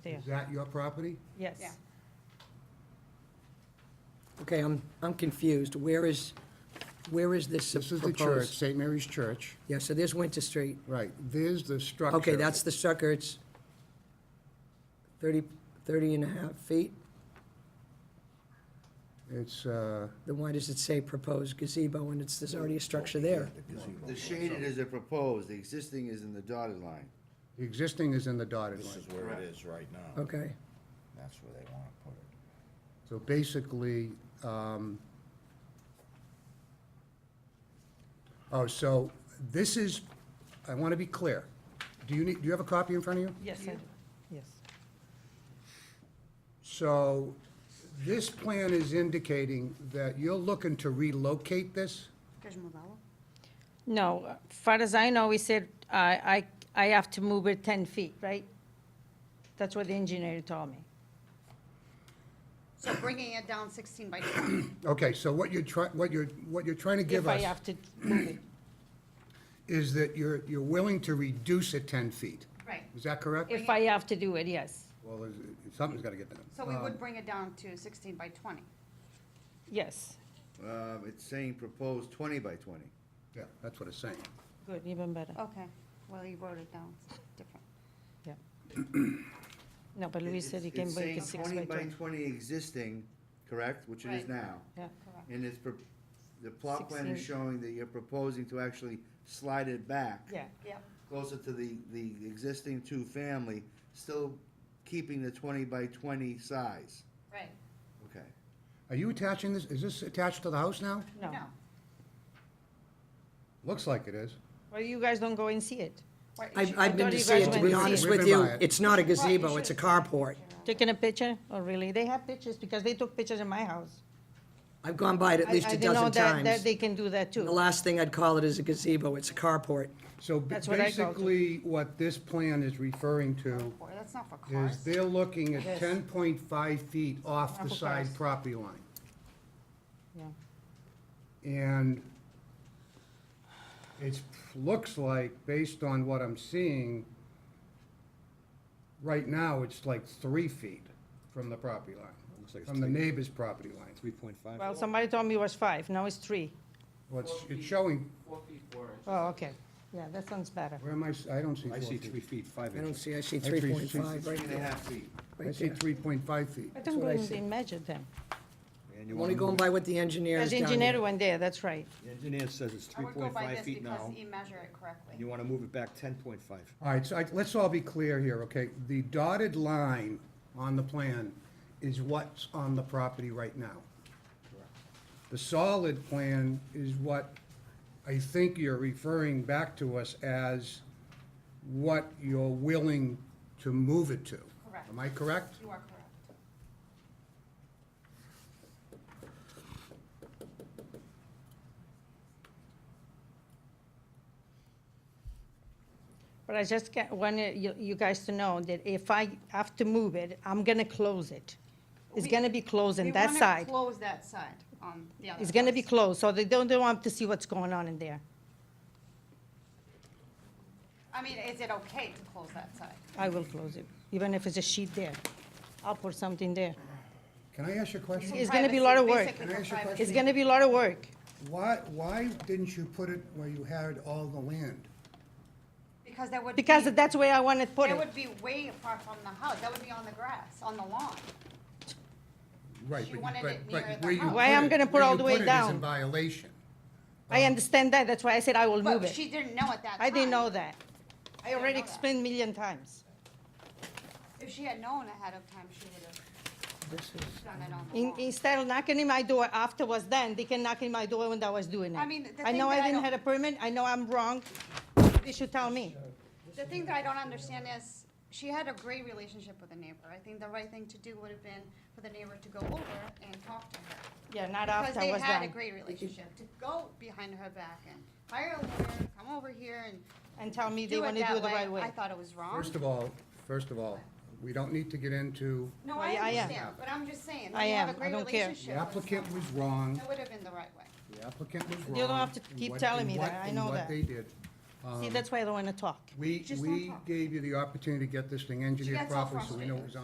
there. Is that your property? Yes. Yeah. Okay, I'm, I'm confused. Where is, where is this This is the church, proposed? St. Mary's Church, Yeah, so there's Winter Street. right, there's the structure. Okay, that's the sucker, it's 30, 30 and a half feet. It's, uh, Then why does it say proposed gazebo and it's, there's already a structure there? The shaded is a proposed, the existing is in the dotted line. the existing is in the dotted This line. is where it is right now. Okay, That's where they want to put it. So basically, um, oh, so this is, I want to be clear. Do you need, do you have a copy in front of you? Yes, I do. Yes. So this plan is indicating that you're looking to relocate this? Queres mudá-la? No, far as I know, we said I, I, I have to move it 10 feet, right? That's what the engineer told me. So bringing it down 16 by 20. Okay, so what you're trying, what you're, what you're trying to give If I us have to move it. is that you're, you're willing to reduce it 10 feet. Right. Is that correct? If I have to do it, yes. Well, is- something's got to get done. So we would bring it down to 16 by 20. Yes. Um, it's saying proposed twenty by twenty. Yeah, that's what it's saying. Good, even better. Okay, well, you wrote it down, It's different. Yeah. No, but Louis said he can break it six by Twenty by two. twenty existing, correct, which it is Right. now. Yeah. Correct. And it's, pro- the plot plan is Sixteen. showing that you're proposing to actually slide it back. Yeah, Yep, Closer to the, the existing two-family, still keeping the twenty by twenty size. right. Okay. Are you attaching this, is this attached to the house now? no. No. Looks like it is. Well, you guys don't go and see it. Right, you I've, should- I've been thought to you see guys it, to went be to honest see it. with you, Right. it's not Well, a you gazebo, it's a should- carport. Taking a picture? Oh, really? They have pictures because they took pictures in my house. I've gone by it at I- least I a didn't know dozen that- That times. they can do that The too. last thing I'd call it is a gazebo, it's a carport. So b- That's what I called it. basically, what this plan is referring to Boy, That's not for is cars. they're looking Yes. at ten point five feet off the Apple side cars. property line. Yeah. And it's, looks like, based on what I'm seeing, right now, it's like three feet from the property line, from the neighbor's property line. Three point five. Well, somebody told me it was five, now it's three. Well, it's, it's showing, Four feet four inches. Oh, okay. Yeah, that sounds better. where am I, s- I don't see I four see feet. three feet, five I don't inches. see, I Actually, see it's 3.5 Three right and a there. half feet. I right see there. three point five feet. I don't what go I and said. they measure them. And you I'm only wanna going move- by what the engineer There's has down there. engineer went there, that's right. The engineer says it's I three would go point by five this feet because now, you measure it and correctly. you wanna move it back ten point five. All right, so I- let's all be clear here, okay? The dotted line on the plan is what's on the property right now. The solid plan is what I think you're referring back to us as what you're willing to move it to. Correct. Am I correct? You are correct. But I just ca- wanted you, you guys to know that if I have to move it, I'm gonna close it. It's We- gonna be closed We on that wanna side. Close that side on the other. It's gonna be house. closed, so they don't, they don't want to see what's going on in there. I mean, is it okay to close that side? I will close it, even if it's a sheet there. I'll put something there. Can I ask you a question? It's gonna be a lot of work. Basically for Can I ask you a privacy. It's gonna be a lot of work. Why, why didn't you put it where you had all the land? Because that would. Because be- that's where I want to put That it. would be way apart from the house, that would be on the grass, on the lawn. Right, She but, wanted but, it but near the where you house. put Why I'm it- gonna put where all you the way put it is down. in violation. I understand that, that's why I said I will move But it. she didn't know at that time. I didn't know that. I didn't already know that. explained million times. If she had known ahead of time, she would have done it on the In- lawn. Instead of knocking in my door afterwards then, they can knock in my door when I was doing it. I mean, the I thing know that I I didn't don't- have a permit, I know I'm wrong. They should tell me. The thing that I don't understand is, she had a great relationship with the neighbor. I think the right thing to do would have been for the neighbor to go over and talk to her. Yeah, not Because after I they was had a done. great relationship, to go behind her back and hire a lawyer, come over here and And tell me they do it want to do it that the right way. I way. thought it was wrong. First of all, first of all, we don't need to get into, No, Well, I yeah, I am. understand, but I'm just saying, I when you have a am. I great don't care. the relationship with applicant someone, was wrong, That would have been the right way. the applicant was wrong. You don't have to in keep what- telling in me what- that. I in know what that. they did. Um, See, that's why I don't want to talk. We, Just don't we talk. gave you the opportunity to get this thing She engineered gets all properly, so we know it was frustrated.